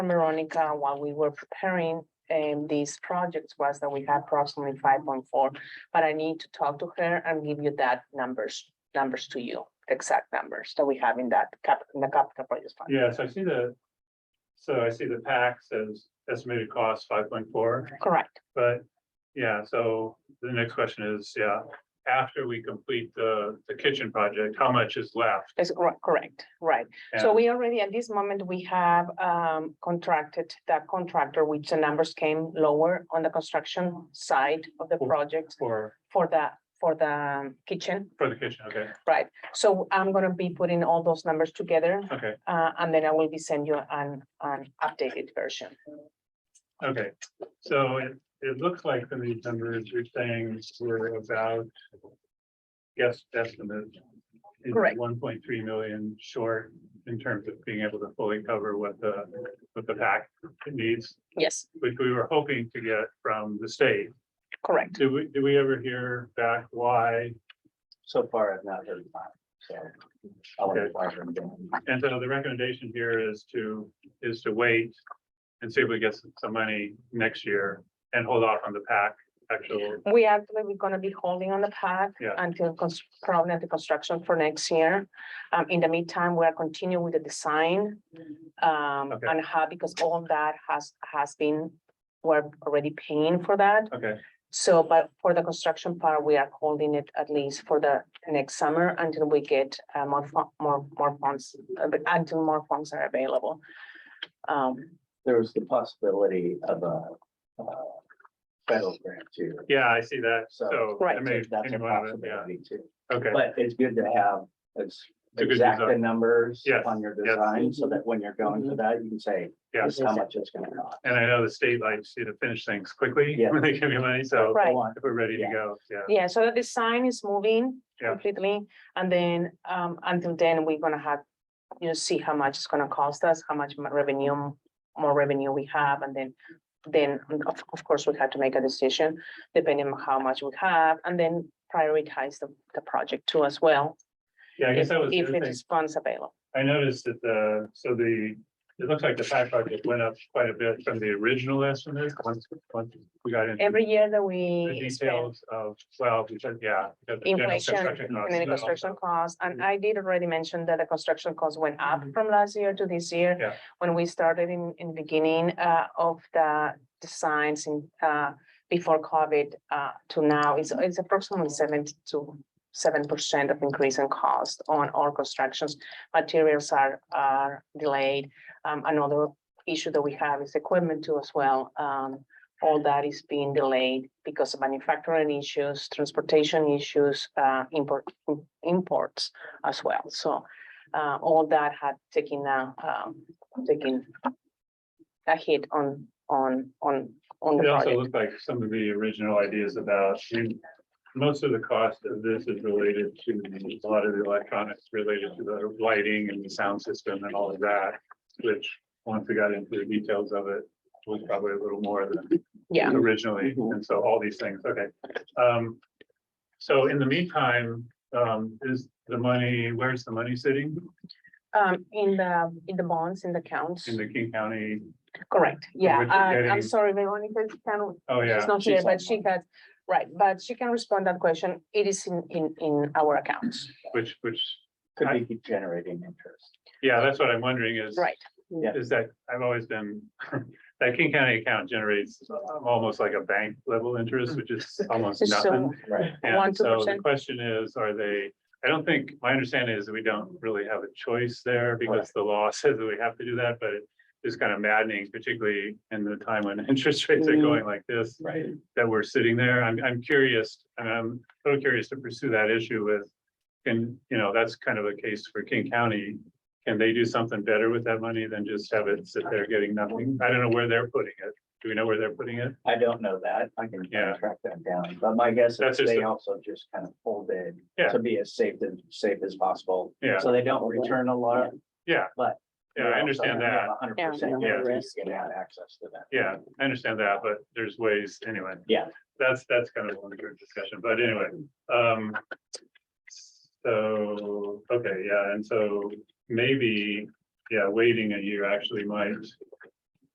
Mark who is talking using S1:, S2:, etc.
S1: Veronica, while we were preparing um these projects was that we had approximately five point four. But I need to talk to her and give you that numbers, numbers to you, exact numbers that we have in that cap, in the capital projects fund.
S2: Yes, I see the. So I see the pack says estimated cost five point four,
S1: Correct,
S2: but yeah, so the next question is, yeah. After we complete the, the kitchen project, how much is left?
S1: is cor- correct, right. So
S2: And-
S1: we already, at this moment, we have um contracted that contractor, which the numbers came lower on the construction side of the
S2: Cool.
S1: project
S2: For,
S1: for the, for the kitchen,
S2: for the kitchen, okay,
S1: right? So I'm gonna be putting all those numbers together
S2: okay,
S1: Uh, and then I will be send you an, an updated version.
S2: okay. So it, it looks like from these numbers, you're saying we're about. Guess estimate. is
S1: Correct.
S2: One point three million short in terms of being able to fully cover what the, what the pack needs.
S1: Yes,
S2: which we were hoping to get from the state.
S1: correct.
S2: Do we, do we ever hear back why?
S3: So far, I've not heard back, so. I want to
S2: Okay.
S3: inquire from them.
S2: And so the recommendation here is to, is to wait and see if we get some- some money next year and hold off on the pack actual.
S1: We actually, we're gonna be holding on the path
S2: Yeah.
S1: until cons- probably the construction for next year. Um, in the meantime, we are continuing with the design. Um,
S2: Okay.
S1: and how, because all of that has, has been, we're already paying for that.
S2: Okay,
S1: So, but for the construction part, we are holding it at least for the next summer until we get uh, more, fu- more, more funds, uh, but until more funds are available. Um,
S3: There was the possibility of a, uh, federal grant too.
S2: yeah, I see that.
S3: So-
S2: So. I
S1: Right.
S2: may-
S3: That's
S2: any
S3: a
S2: one of it, yeah.
S3: possibility too,
S2: Okay,
S3: but it's good to have ex-
S2: It's a good
S3: exact
S2: design.
S3: numbers
S2: Yes,
S3: on your
S2: yes.
S3: design, so that when you're going for that, you can say, this
S2: yes.
S3: is how much it's gonna cost.
S2: And I know the state likes you to finish things quickly
S3: Yeah.
S2: when they give you money, so
S1: Right.
S2: if we're ready to
S3: Yeah.
S2: go, yeah.
S1: Yeah, so the design is moving
S2: Yeah.
S1: completely, and then, um, until then, we're gonna have, you know, see how much it's gonna cost us, how much mo- revenue, more revenue we have, and then, then, of, of course, we have to make a decision depending on how much we have, and then prioritize the, the project too as well,
S2: Yeah, I guess
S1: if
S2: that was. the
S1: if
S2: other
S1: it
S2: thing.
S1: is funds available.
S2: I noticed that the, so the, it looks like the pack project went up quite a bit from the original estimate. Once, once we got into
S1: Every year that
S2: Mm-hmm. the
S1: we spend
S2: details of, well, because, yeah. because of general
S1: inflation
S2: construction costs
S1: and then the
S2: and all.
S1: construction costs, and I did already mention that the construction costs went up from last year to this year.
S2: Yeah.
S1: When we started in, in beginning, uh, of the designs in, uh, before COVID, uh, to now, it's, it's approximately seven to seven percent of increase in cost on all constructions. Materials are, are delayed. Um, another issue that we have is equipment too as well. Um, all that is being delayed because of manufacturing issues, transportation issues, uh, import, imports as well. So, uh, all that had taken a, um, taken a hit on, on, on, on the
S2: It also
S1: project.
S2: looked like some of the original ideas about, I mean, most of the cost of this is related to a lot of the electronics related to the lighting and the sound system and all of that. Which, once we got into the details of it, was probably a little more than
S1: Yeah, Mm-hmm.
S2: originally, and so all these things, okay. Um, so in the meantime, um, is the money, where's the money sitting
S1: um, in the, in the bonds, in the counts,
S2: in the King County?
S1: correct, yeah,
S2: which is
S1: uh, I'm
S2: getting-
S1: sorry, Veronica, it's kind of
S2: Oh, yeah,
S1: She's not here,
S3: she's
S1: but
S3: online.
S1: she has, right, but she can respond that question. It is in, in, in our accounts,
S2: which, which,
S3: Could be generating interest.
S2: yeah, that's what I'm wondering is.
S1: right?
S3: Yeah.
S2: Is that, I've always been, that King County account generates um, almost like a bank level interest, which is almost nothing.
S1: Mm. So,
S3: Right.
S2: And
S1: One, two
S2: so the
S1: percent.
S2: question is, are they, I don't think, my understanding is that we don't really have a choice there because the law says that we have to do that, but it is kind of maddening, particularly in the time when interest rates are
S1: Mhm.
S2: going like this,
S3: Right.
S2: that we're sitting there. I'm, I'm curious, and I'm a little curious to pursue that issue with, and, you know, that's kind of a case for King County. Can they do something better with that money than just have it sit there getting nothing? I don't know where they're putting it. Do we know where they're putting it?
S3: I don't know that. I can
S2: Yeah.
S3: track that down, but my guess
S2: That's
S3: is
S2: just
S3: they
S2: a-
S3: also just kind of pulled in
S2: Yeah.
S3: to be as safe as safe as possible.
S2: Yeah.
S3: So they don't return a lot.
S2: Yeah.
S3: But-
S2: Yeah, I understand that.
S3: Hundred percent
S2: Yeah.
S3: guarantee you're gonna have access to that.
S2: Yeah, I understand that, but there's ways, anyway.
S3: Yeah.
S2: That's, that's kind of a longer discussion, but anyway, um. So, okay, yeah, and so maybe, yeah, waiting a year actually might